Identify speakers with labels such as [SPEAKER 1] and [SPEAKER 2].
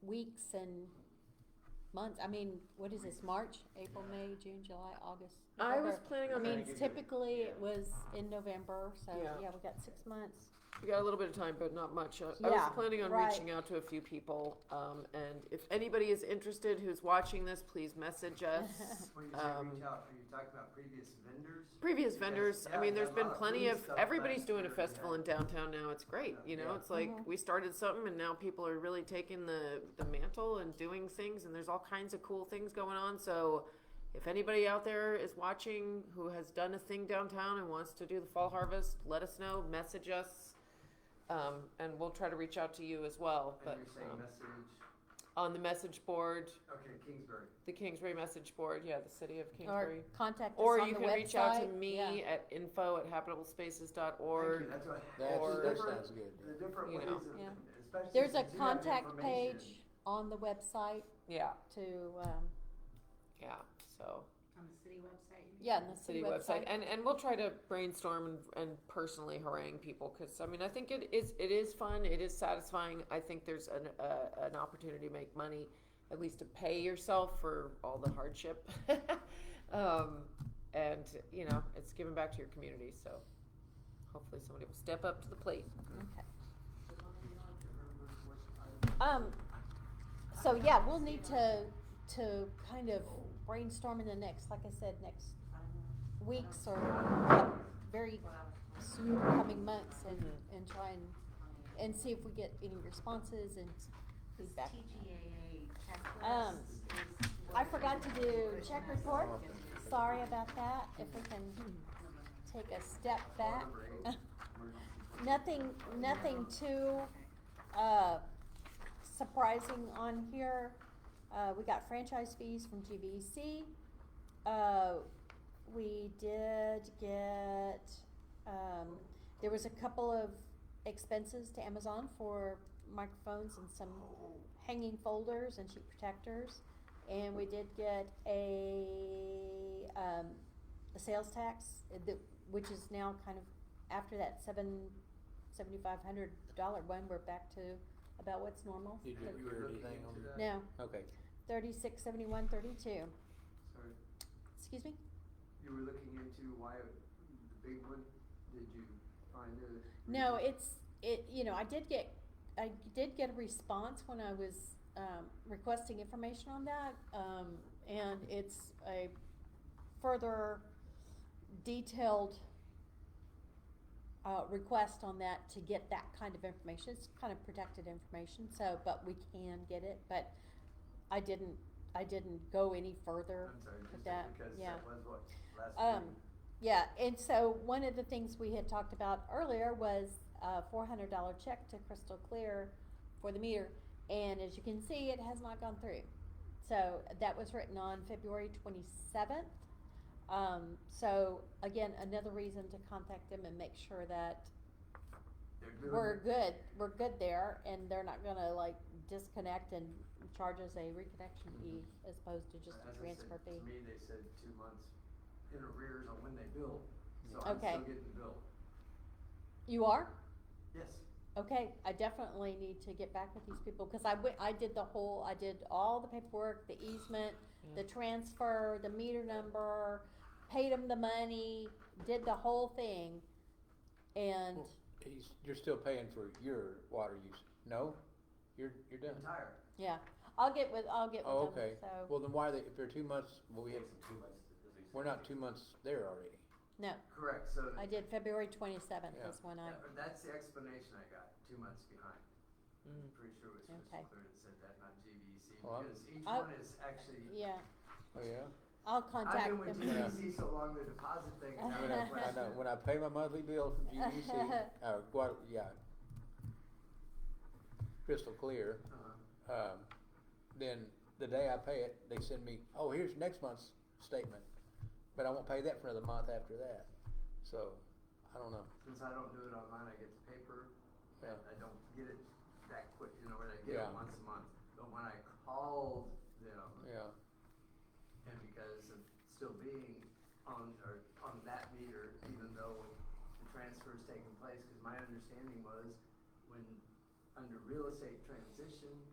[SPEAKER 1] weeks and months, I mean, what is this, March, April, May, June, July, August?
[SPEAKER 2] I was
[SPEAKER 1] November?
[SPEAKER 2] planning
[SPEAKER 1] I
[SPEAKER 2] on,
[SPEAKER 1] mean,
[SPEAKER 3] Trying to get your-
[SPEAKER 1] typically
[SPEAKER 3] yeah.
[SPEAKER 1] it was in November, so,
[SPEAKER 2] Yeah.
[SPEAKER 1] yeah, we got six months.
[SPEAKER 2] we got a little bit of time, but not much. I- I
[SPEAKER 1] Yeah,
[SPEAKER 2] was planning on
[SPEAKER 1] right.
[SPEAKER 2] reaching out to a few people, um, and if anybody is interested who's watching this, please message us.
[SPEAKER 3] When you say
[SPEAKER 2] Um,
[SPEAKER 3] reach out, are you talking about previous vendors?
[SPEAKER 2] Previous
[SPEAKER 3] Because,
[SPEAKER 2] vendors, I
[SPEAKER 3] yeah,
[SPEAKER 2] mean,
[SPEAKER 3] there
[SPEAKER 2] there's
[SPEAKER 3] are a
[SPEAKER 2] been
[SPEAKER 3] lot of
[SPEAKER 2] plenty
[SPEAKER 3] food
[SPEAKER 2] of,
[SPEAKER 3] stuff
[SPEAKER 2] everybody's
[SPEAKER 3] last
[SPEAKER 2] doing a
[SPEAKER 3] year,
[SPEAKER 2] festival
[SPEAKER 3] yeah.
[SPEAKER 2] in downtown now, it's great, you know,
[SPEAKER 3] Yeah.
[SPEAKER 2] it's like,
[SPEAKER 1] Mhm.
[SPEAKER 2] we started something and now people are really taking the, the mantle and doing things, and there's all kinds of cool things going on, so if anybody out there is watching who has done a thing downtown and wants to do the fall harvest, let us know, message us, um, and we'll try to reach out to you as well, but,
[SPEAKER 3] And you're saying
[SPEAKER 2] um,
[SPEAKER 3] message,
[SPEAKER 2] on the message board,
[SPEAKER 3] okay, Kingsbury.
[SPEAKER 2] the Kingsbury message board, yeah, the city of
[SPEAKER 1] Or
[SPEAKER 2] Kingsbury.
[SPEAKER 1] contact us on the
[SPEAKER 2] Or
[SPEAKER 1] website.
[SPEAKER 2] you can reach out to
[SPEAKER 1] yeah.
[SPEAKER 2] me at info at habitableSpaces.org.
[SPEAKER 3] Thank you, that's what.
[SPEAKER 4] That's,
[SPEAKER 2] Or-
[SPEAKER 4] that
[SPEAKER 3] There's
[SPEAKER 4] sounds
[SPEAKER 3] different-
[SPEAKER 4] good.
[SPEAKER 3] The different
[SPEAKER 2] You
[SPEAKER 3] ways
[SPEAKER 2] know.
[SPEAKER 3] of,
[SPEAKER 1] Yeah.
[SPEAKER 3] especially.
[SPEAKER 1] There's a
[SPEAKER 3] since you have the
[SPEAKER 1] contact
[SPEAKER 3] information.
[SPEAKER 1] page on the website
[SPEAKER 2] Yeah,
[SPEAKER 1] to, um,
[SPEAKER 2] yeah. So
[SPEAKER 5] On the city website? you mean?
[SPEAKER 1] yeah, and the
[SPEAKER 2] city website, and and we'll try to brainstorm and, and personally harangue people because I mean I think it is it is fun. It is satisfying. I think there's an uh, an opportunity to make money, at least to pay yourself for all the hardship. um, and you know it's giving back to your community. So hopefully somebody will step up to the plate.
[SPEAKER 1] Okay.
[SPEAKER 3] Or-
[SPEAKER 1] Um, so yeah, we'll need to, to kind of brainstorm in the next, like I said, next weeks or very soon coming months and,
[SPEAKER 2] Mhm.
[SPEAKER 1] and try and, and see if we get any responses and
[SPEAKER 5] This
[SPEAKER 1] feedback.
[SPEAKER 5] TGAA checklist
[SPEAKER 1] Um,
[SPEAKER 5] is
[SPEAKER 1] I
[SPEAKER 5] what-
[SPEAKER 1] forgot to do check report, sorry about that, if we can take a step back.
[SPEAKER 5] Hmm.
[SPEAKER 1] Nothing, nothing too, uh, surprising on here. Uh, we got franchise fees from GVEC. Uh, we did get, um, there was a couple of expenses to Amazon for microphones and some hanging folders and sheet protectors. And we did get a, um, a sales tax, uh, that, which is now kind of, after that seven, seventy-five hundred dollar one, we're back to about what's normal.
[SPEAKER 4] Did
[SPEAKER 3] If
[SPEAKER 4] you
[SPEAKER 3] were
[SPEAKER 4] hear
[SPEAKER 3] looking
[SPEAKER 4] anything
[SPEAKER 3] into
[SPEAKER 4] on
[SPEAKER 3] that-
[SPEAKER 1] No,
[SPEAKER 4] Okay.
[SPEAKER 1] thirty-six, seventy-one, thirty-two,
[SPEAKER 3] Sorry,
[SPEAKER 1] excuse me?
[SPEAKER 3] you were looking into why, it- the big one, did you find the?
[SPEAKER 1] No, it's, it, you know, I did get, I did get a response when I was, um, requesting information on that, um, and it's a further detailed uh, request on that to get that kind of information, it's kind of protected information, so, but we can get it, but I didn't, I didn't go any further.
[SPEAKER 3] I'm sorry, just
[SPEAKER 1] that,
[SPEAKER 3] because
[SPEAKER 1] yeah.
[SPEAKER 3] that was what, last
[SPEAKER 1] Um,
[SPEAKER 3] week.
[SPEAKER 1] Yeah, and so one of the things we had talked about earlier was a four hundred dollar check to Crystal Clear for the meter, and as you can see, it has not gone through. So that was written on February twenty seventh. Um, so again, another reason to contact them and make sure that
[SPEAKER 3] They're doing
[SPEAKER 1] we're
[SPEAKER 3] it.
[SPEAKER 1] good, we're good there, and they're not gonna like disconnect and charge us a reconnection fee as opposed to just
[SPEAKER 3] As
[SPEAKER 1] a
[SPEAKER 3] I said,
[SPEAKER 1] transfer fee.
[SPEAKER 3] To me, they said two months in arrears on when they bill, so I'm
[SPEAKER 1] Okay.
[SPEAKER 3] still getting billed.
[SPEAKER 1] You are?
[SPEAKER 3] Yes,
[SPEAKER 1] Okay, I definitely need to get back with these people, cause I went, I did the whole, I did all the paperwork, the easement,
[SPEAKER 4] Mm.
[SPEAKER 1] the transfer, the meter number, paid them the money, did the whole thing. And,
[SPEAKER 4] Well- He's, you're still paying for your water use. No? You're, you're done.
[SPEAKER 3] entire.
[SPEAKER 1] yeah, I'll get with, I'll get
[SPEAKER 4] Oh,
[SPEAKER 1] with them,
[SPEAKER 4] okay.
[SPEAKER 1] so,
[SPEAKER 4] Well, then why are they, if they're two months, well, we have, we're not two months there already.
[SPEAKER 1] no,
[SPEAKER 3] Correct, so.
[SPEAKER 1] I did February twenty-seventh
[SPEAKER 4] Yeah.
[SPEAKER 1] is when I,
[SPEAKER 3] that- That's the explanation I got, two months behind. I'm Pretty sure it was
[SPEAKER 1] Okay.
[SPEAKER 3] Crystal Clear that said that, not GVEC,
[SPEAKER 4] Mm. Well,
[SPEAKER 3] E
[SPEAKER 4] I'm-
[SPEAKER 3] because each
[SPEAKER 1] I-
[SPEAKER 3] one is actually.
[SPEAKER 1] yeah,
[SPEAKER 4] Oh, yeah?
[SPEAKER 1] I'll
[SPEAKER 3] I've
[SPEAKER 1] contact
[SPEAKER 3] been with
[SPEAKER 1] them.
[SPEAKER 4] Yeah.
[SPEAKER 3] GVEC so long, the deposit thing is
[SPEAKER 4] When
[SPEAKER 3] out
[SPEAKER 4] I,
[SPEAKER 3] of
[SPEAKER 4] when I, know-
[SPEAKER 3] question.
[SPEAKER 4] when I pay my monthly bill from GVC, uh, Guad, yeah. Crystal clear,
[SPEAKER 3] Uh-huh.
[SPEAKER 4] um, then the day I pay it, they send me, oh, here's next month's statement. But I won't pay that for another month after that. So, I don't know.
[SPEAKER 3] Since I don't do it online, I get the paper,
[SPEAKER 4] Yeah.
[SPEAKER 3] and I don't get it that quick, you know, where I get
[SPEAKER 4] Yeah.
[SPEAKER 3] it once a month. But when I called them,
[SPEAKER 4] Yeah.
[SPEAKER 3] and because of still being on, or on that meter, even though the transfer is taking place, because my understanding was when, under real estate transition,